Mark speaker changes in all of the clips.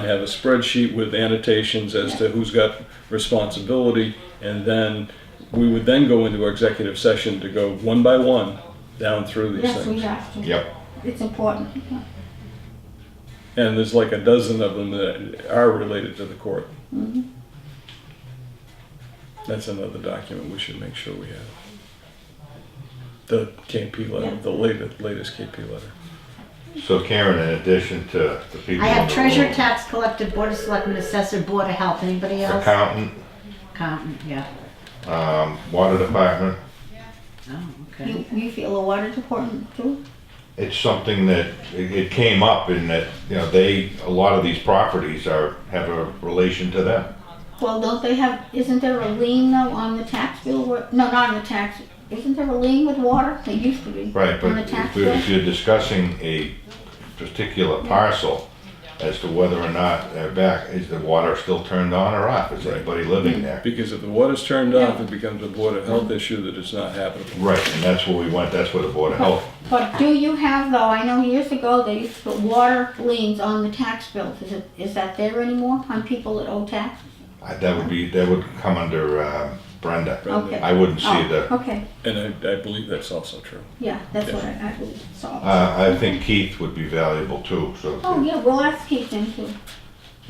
Speaker 1: I have a spreadsheet with annotations as to who's got responsibility, and then we would then go into our executive session to go one by one down through these
Speaker 2: Yes, we
Speaker 1: things.
Speaker 2: have to.
Speaker 3: Yep.
Speaker 2: It's important.
Speaker 1: And there's like a dozen of them that are related to the court.
Speaker 2: Mm-hmm.
Speaker 1: That's another document we should make sure we have. The KP letter, the latest, latest KP letter.
Speaker 3: So Karen, in addition to the people.
Speaker 4: I
Speaker 3: in
Speaker 4: have
Speaker 3: the
Speaker 4: treasurer,
Speaker 3: room,
Speaker 4: tax collector, board of selectmen, assessor, board of health, anybody else?
Speaker 3: Accountant,
Speaker 4: Accountant, yeah,
Speaker 3: um, water department,
Speaker 4: oh, okay.
Speaker 2: You, you feel the water's important too?
Speaker 3: it's something that, it, it came up in that, you know, they, a lot of these properties are, have a relation to them.
Speaker 2: Well, don't they have, isn't there a lien though on the tax bill? where- No, not on the tax, isn't there a lien with water? There used to be.
Speaker 3: Right,
Speaker 2: On
Speaker 3: but
Speaker 2: the tax
Speaker 3: if we-
Speaker 2: bill.
Speaker 3: if you're discussing a particular parcel as to whether or not they're back, is the water still turned on or off? Is anybody living there?
Speaker 1: Because if the water's turned off, it becomes a Board of Health issue that is not habitable.
Speaker 3: Right, and that's where we went, that's where the Board of Health,
Speaker 2: But do you have though, I know years ago they used to put water liens on the tax bills. Is it, is that there anymore on people that owe tax?
Speaker 3: I- that would be, that would come under um, Brenda.
Speaker 1: Brenda.
Speaker 2: Okay.
Speaker 3: I wouldn't see
Speaker 2: Oh,
Speaker 3: the
Speaker 2: Okay,
Speaker 1: And I, I believe that's also true.
Speaker 2: yeah, that's what I, I believe, so.
Speaker 3: Uh, I think Keith would be valuable too, so,
Speaker 2: Oh, yeah, we'll ask Keith then too.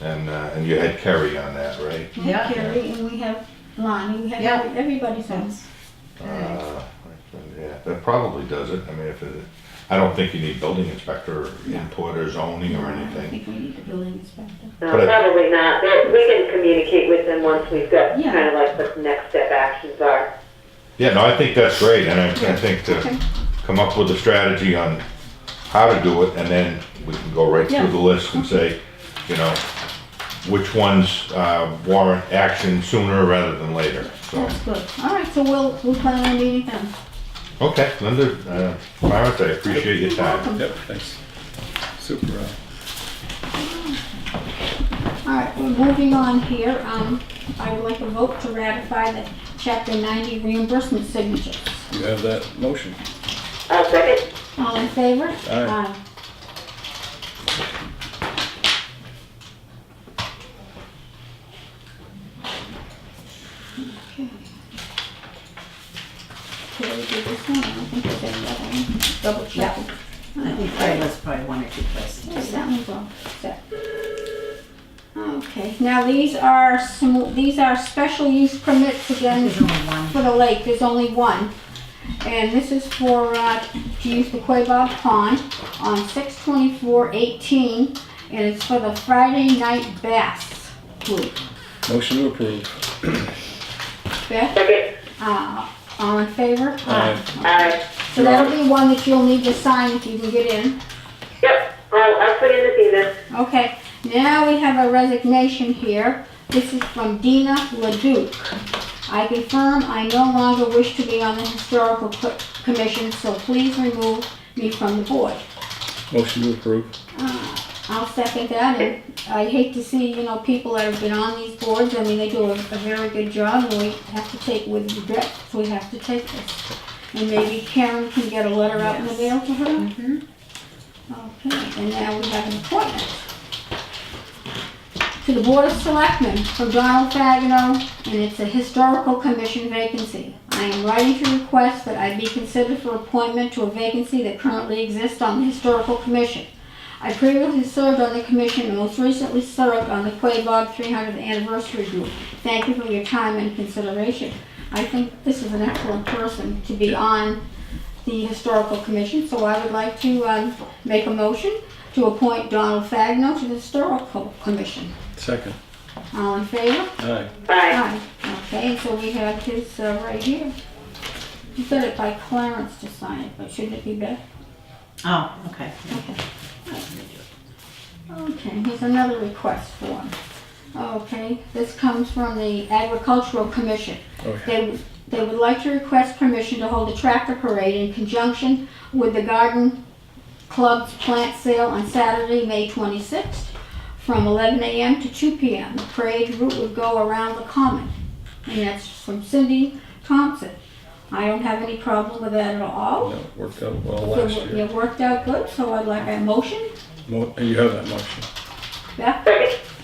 Speaker 3: and, uh, and you had Kerry on that, right?
Speaker 2: We have Gary and we have Lonnie, we have
Speaker 4: Yeah.
Speaker 2: every- everybody's on.
Speaker 3: Uh, Yeah, that probably does it, I mean, if it, I don't think you need building inspector input or zoning or
Speaker 2: I
Speaker 3: anything.
Speaker 2: think we need a building inspector.
Speaker 5: No,
Speaker 3: But I-
Speaker 5: probably not. But We can communicate with them once we've got
Speaker 2: Yeah.
Speaker 5: kind of like what the next step actions are.
Speaker 3: Yeah, no, I think that's great, and I, I think
Speaker 2: Okay.
Speaker 3: to come up with a strategy on how to do it, and then we can go right
Speaker 2: Yeah.
Speaker 3: through the list and say, you know, which ones, uh, warrant action sooner rather than later, so.
Speaker 2: That's good. All right, so we'll, we'll plan on meeting then.
Speaker 3: Okay, Linda, uh, Clarence, I appreciate your
Speaker 2: You're
Speaker 3: time.
Speaker 2: welcome.
Speaker 1: Yep, thanks. Super. uh,
Speaker 2: All right, we're moving on here. Um, I would like a vote to ratify the chapter ninety reimbursement signatures.
Speaker 1: You have that motion.
Speaker 5: I'll second.
Speaker 2: All in favor?
Speaker 1: Aye.
Speaker 2: Okay. Okay, we did this one. I don't think there's any other one. Double check.
Speaker 4: I think there was probably one or two places.
Speaker 2: Yes, that one's all set. Okay, now these are some, these are special use permits again
Speaker 4: There's only one.
Speaker 2: for the lake, there's only one. And this is for, uh, to use the Quabog Pond on six twenty-four eighteen, and it's for the Friday Night Bass Group.
Speaker 1: Motion to approve.
Speaker 2: Beth,
Speaker 5: Second.
Speaker 2: uh, all in favor?
Speaker 1: Aye.
Speaker 5: Aye.
Speaker 2: So that'll be one that you'll need to sign if you can get in.
Speaker 5: Yep. I'll, I'll put in this evening.
Speaker 2: Okay, now we have a resignation here. This is from Dina Leduc. I confirm I no longer wish to be on the Historical Co- Commission, so please remove me from the board.
Speaker 1: Motion to approve.
Speaker 2: I'll second that, and I hate to see, you know, people that have been on these boards, I mean, they do a, a very good job, and we have to take with regret, we have to take this. And maybe Karen can get a letter out in the mail to her? Okay, and now we have an appointment. To the Board of Selectmen from Donald Fagino, and it's a Historical Commission vacancy. I am writing to request that I be considered for appointment to a vacancy that currently exists on the Historical Commission. I previously served on the commission and most recently served on the Quabog 300th Anniversary Group. Thank you for your time and consideration. I think this is an excellent person to be on the Historical Commission, so I would like to um, make a motion to appoint Donald Fagno to the Historical Commission.
Speaker 1: Second.
Speaker 2: All in favor?
Speaker 1: Aye.
Speaker 5: Aye.
Speaker 2: Aye. Okay, so we have his uh, right here. You said it by Clarence to sign it, but shouldn't it be Beth?
Speaker 4: Oh, okay.
Speaker 2: Okay, here's another request form. Okay, this comes from the Agricultural Commission.
Speaker 1: Okay.
Speaker 2: They, they would like to request permission to hold a tractor parade in conjunction with the garden club's plant sale on Saturday, May 26th, from 11 a.m. to 2 p.m. The parade route would go around the common, and that's from Cindy Thompson. I don't have any problem with that at all.
Speaker 1: No, worked out well last
Speaker 2: It wo-
Speaker 1: year.
Speaker 2: It worked out good, so I'd like a motion
Speaker 1: Mo- You have that motion.
Speaker 2: Beth,
Speaker 5: Second?